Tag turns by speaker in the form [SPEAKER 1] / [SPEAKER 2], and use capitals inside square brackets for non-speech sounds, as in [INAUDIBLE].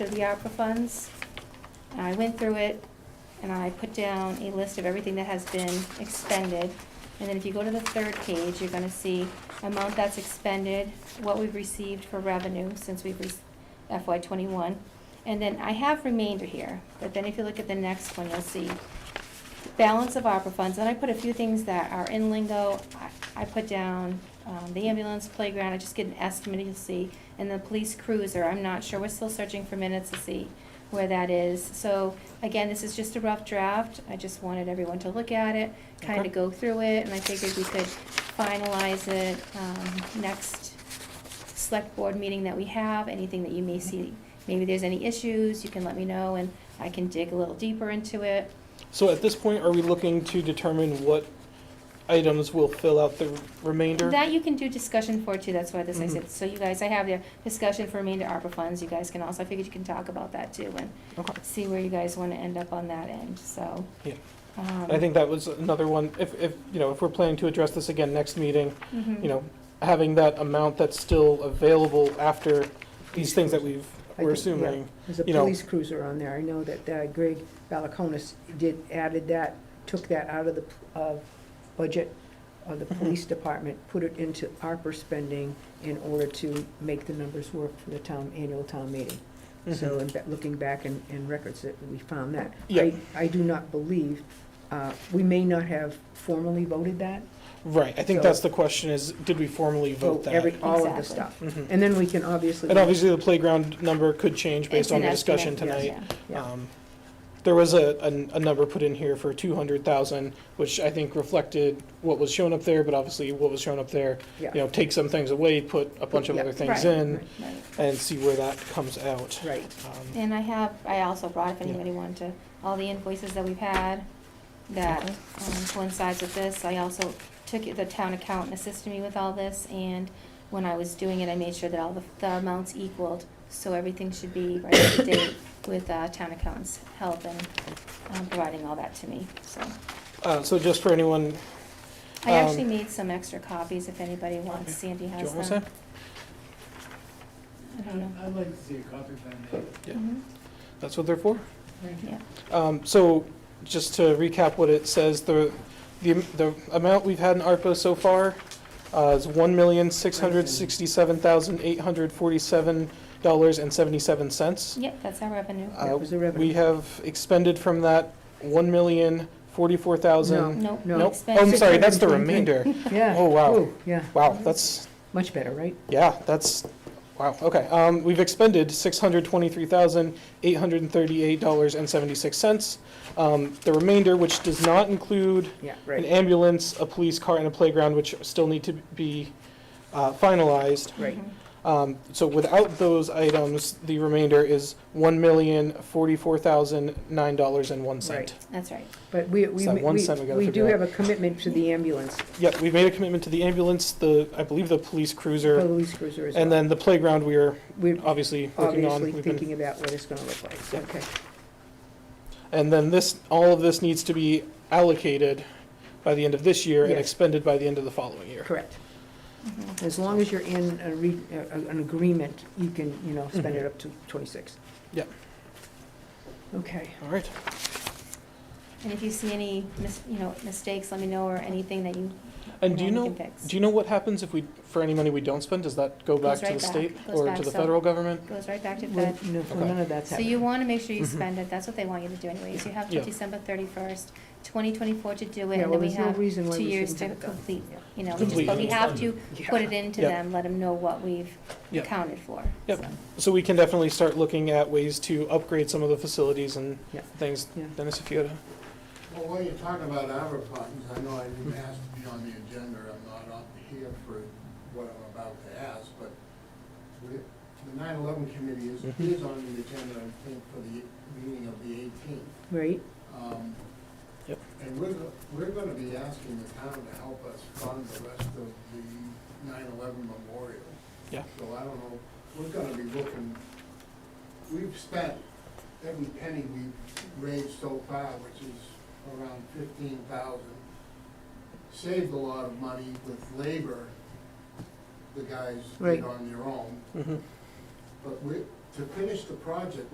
[SPEAKER 1] to the ARPA funds. And I went through it and I put down a list of everything that has been expended. And then if you go to the third page, you're gonna see amount that's expended, what we've received for revenue since we've re- FY twenty-one. And then I have remainder here, but then if you look at the next one, you'll see balance of ARPA funds, and I put a few things that are in lingo. I I put down um, the ambulance playground, I just get an estimate, you'll see, and the police cruiser, I'm not sure, we're still searching for minutes to see where that is. So, again, this is just a rough draft, I just wanted everyone to look at it, kind
[SPEAKER 2] Okay.
[SPEAKER 1] of go through it, and I figured we could finalize it um, next select board meeting that we have, anything that you may see, maybe there's any issues, you can let me know, and I can dig a little deeper into it.
[SPEAKER 2] So at this point, are we looking to determine what items will fill out the remainder?
[SPEAKER 1] That you can do discussion for too, that's why this I
[SPEAKER 2] Mhm.
[SPEAKER 1] said, so you guys, I have the discussion for remainder ARPA funds, you guys can also, I figured you can talk about that too and
[SPEAKER 2] Okay.
[SPEAKER 1] see where you guys wanna end up on that end, so.
[SPEAKER 2] Yeah.
[SPEAKER 1] um,
[SPEAKER 2] I think that was another one, if, if, you know, if we're planning to address this again next meeting,
[SPEAKER 1] mhm.
[SPEAKER 2] you know, having that amount that's still available after these things that we've,
[SPEAKER 3] I
[SPEAKER 2] we're
[SPEAKER 3] think, yeah.
[SPEAKER 2] assuming.
[SPEAKER 3] There's a
[SPEAKER 2] you know-
[SPEAKER 3] police cruiser on there. I know that uh, Greg Balakonis did, added that, took that out of the p- uh, budget of the
[SPEAKER 2] Mhm.
[SPEAKER 3] police department, put it into ARPA spending in order to make the numbers work for the town, annual town meeting. So,
[SPEAKER 2] Mhm.
[SPEAKER 3] in ba- looking back in, in records, that we found that.
[SPEAKER 2] Yeah.
[SPEAKER 3] I, I do not believe, uh, we may not have formally voted that.
[SPEAKER 2] Right, I think
[SPEAKER 3] So- Oh,
[SPEAKER 2] that's the question is, did we formally vote that?
[SPEAKER 3] every- All of the
[SPEAKER 1] Exactly.
[SPEAKER 3] stuff.
[SPEAKER 2] Mhm.
[SPEAKER 3] And then we can obviously.
[SPEAKER 2] And obviously, the playground number could change
[SPEAKER 1] It's
[SPEAKER 2] based on
[SPEAKER 1] an
[SPEAKER 2] the discussion
[SPEAKER 1] estimate,
[SPEAKER 2] tonight.
[SPEAKER 1] yeah.
[SPEAKER 3] Yeah.
[SPEAKER 2] Um, There was a, a a number put in here for 200,000, which I think reflected what was shown up there, but obviously what was shown up there, you
[SPEAKER 3] Yeah.
[SPEAKER 2] know, take some things away, put a bunch of
[SPEAKER 3] Yeah.
[SPEAKER 2] other things
[SPEAKER 1] Right.
[SPEAKER 2] in,
[SPEAKER 1] Right.
[SPEAKER 2] and see where that comes out.
[SPEAKER 3] Right.
[SPEAKER 2] Um,
[SPEAKER 1] And I have, I also brought, if
[SPEAKER 2] Yeah.
[SPEAKER 1] anybody wanted to, all the invoices that we've had that
[SPEAKER 2] Okay.
[SPEAKER 1] um, coincides with this. I also took it- the town accountant assisted me with all this, and when I was doing it, I made sure that all the, the amounts equaled, so everything should be right up to
[SPEAKER 2] [COUGHS]
[SPEAKER 1] date with uh, town accountant's help and um, providing all that to me, so.
[SPEAKER 2] uh, So just for anyone,
[SPEAKER 1] I
[SPEAKER 2] Um,
[SPEAKER 1] actually made some extra copies if anybody wants, Sandy
[SPEAKER 2] do you
[SPEAKER 1] has
[SPEAKER 2] want
[SPEAKER 1] them.
[SPEAKER 2] to
[SPEAKER 1] I don't know.
[SPEAKER 4] I'd like to see a copy if I may.
[SPEAKER 2] Yeah.
[SPEAKER 1] Mhm.
[SPEAKER 2] say? That's what they're for?
[SPEAKER 4] Thank
[SPEAKER 1] Yeah.
[SPEAKER 2] Um, So just to recap what it says, the, the the amount we've had in ARPA so far uh, is $1,667,847.77.
[SPEAKER 1] Yep, that's our revenue.
[SPEAKER 2] Uh,
[SPEAKER 3] That was the revenue.
[SPEAKER 2] We have expended from that $1,044,000.
[SPEAKER 1] Nope.
[SPEAKER 3] no.
[SPEAKER 2] Nope. Oh, I'm
[SPEAKER 1] expense.
[SPEAKER 2] sorry, that's the
[SPEAKER 3] 623.
[SPEAKER 2] remainder.
[SPEAKER 3] Yeah.
[SPEAKER 2] Oh, wow.
[SPEAKER 3] Ooh, Yeah,
[SPEAKER 2] Wow, that's,
[SPEAKER 3] much better, right?
[SPEAKER 2] yeah, that's, wow, okay. Um, We've expended $623,838.76. Um, The remainder, which does not include
[SPEAKER 3] Yeah,
[SPEAKER 2] an
[SPEAKER 3] right,
[SPEAKER 2] ambulance, a police car, and a playground, which still need to be uh, finalized.
[SPEAKER 3] right.
[SPEAKER 1] Mhm.
[SPEAKER 2] Um, So without those items, the remainder is $1,044,009.01.
[SPEAKER 3] Right.
[SPEAKER 1] That's right.
[SPEAKER 3] But we, we,
[SPEAKER 2] So one
[SPEAKER 3] we
[SPEAKER 2] cent we gotta
[SPEAKER 3] we do
[SPEAKER 2] figure out.
[SPEAKER 3] have a commitment to the ambulance,
[SPEAKER 2] Yep, we've made a commitment to the ambulance, the, I believe the police cruiser,
[SPEAKER 3] police cruiser as well.
[SPEAKER 2] and then the playground we are
[SPEAKER 3] We're
[SPEAKER 2] obviously working on.
[SPEAKER 3] obviously
[SPEAKER 2] We've been-
[SPEAKER 3] thinking about what it's gonna look like,
[SPEAKER 2] Yep.
[SPEAKER 3] okay.
[SPEAKER 2] And then this, all of this needs to be allocated by the end of this year and
[SPEAKER 3] Yes.
[SPEAKER 2] expended by the end of the following year.
[SPEAKER 3] Correct.
[SPEAKER 1] Mhm.
[SPEAKER 3] As long as you're in a re, a- a- an agreement, you can, you know, spend
[SPEAKER 2] Mm-hmm.
[SPEAKER 3] it up to twenty-six.
[SPEAKER 2] Yep.
[SPEAKER 3] Okay,
[SPEAKER 2] All right,
[SPEAKER 1] And if you see any, mis- you know, mistakes, let me know, or anything that you.
[SPEAKER 2] and do you
[SPEAKER 1] want
[SPEAKER 2] know,
[SPEAKER 1] me to fix.
[SPEAKER 2] do you know what happens if we, for any money we don't spend, does that go
[SPEAKER 1] Goes
[SPEAKER 2] back to
[SPEAKER 1] right
[SPEAKER 2] the
[SPEAKER 1] back.
[SPEAKER 2] state
[SPEAKER 1] Goes
[SPEAKER 2] or
[SPEAKER 1] back,
[SPEAKER 2] to the
[SPEAKER 1] so-
[SPEAKER 2] federal government?
[SPEAKER 1] Goes right back to
[SPEAKER 3] well,
[SPEAKER 1] Fed.
[SPEAKER 3] no, well,
[SPEAKER 2] Okay.
[SPEAKER 3] none of that's
[SPEAKER 1] So you
[SPEAKER 3] happening.
[SPEAKER 1] wanna make sure you
[SPEAKER 2] Mhm.
[SPEAKER 1] spend it, that's what they want you to do anyways, you have till
[SPEAKER 2] Yeah.
[SPEAKER 1] December thirty-first, twenty twenty-four to do it,
[SPEAKER 3] Yeah,
[SPEAKER 1] and then
[SPEAKER 3] well,
[SPEAKER 1] we
[SPEAKER 3] there's no
[SPEAKER 1] have,
[SPEAKER 3] reason why
[SPEAKER 1] two
[SPEAKER 3] we
[SPEAKER 1] years
[SPEAKER 3] shouldn't
[SPEAKER 1] to
[SPEAKER 3] have it done.
[SPEAKER 1] complete.
[SPEAKER 3] Yeah.
[SPEAKER 1] you know, we just,
[SPEAKER 2] Complete.
[SPEAKER 1] but we have to
[SPEAKER 3] Yeah.
[SPEAKER 1] put it into
[SPEAKER 2] Yeah.
[SPEAKER 1] them, let them know what we've
[SPEAKER 2] Yeah.
[SPEAKER 1] accounted for.
[SPEAKER 2] Yep.
[SPEAKER 1] so.
[SPEAKER 2] So we can definitely start looking at ways to upgrade some of the facilities and
[SPEAKER 3] Yeah.
[SPEAKER 2] things.
[SPEAKER 3] Yeah.
[SPEAKER 2] Dennis, if you had a.
[SPEAKER 4] Well, while you're talking about ARPA funds, I know I didn't ask to be on the agenda, I'm not up here for what I'm about to ask, but we- the 9/11 committee is,
[SPEAKER 2] Mhm.
[SPEAKER 4] is on the agenda, I think, for the meeting of the 18th.
[SPEAKER 3] Right,
[SPEAKER 4] Um,
[SPEAKER 2] Yep.
[SPEAKER 4] And we're, go- we're gonna be asking the town to help us fund the rest of the 9/11 memorial.
[SPEAKER 2] Yeah.
[SPEAKER 4] So I don't know, we're gonna be looking, we've spent every penny we've raised so far, which is around fifteen thousand. Saved a lot of money with labor, the guys
[SPEAKER 3] Right.
[SPEAKER 4] did on their own,
[SPEAKER 2] mhm.
[SPEAKER 4] but we, to finish the project,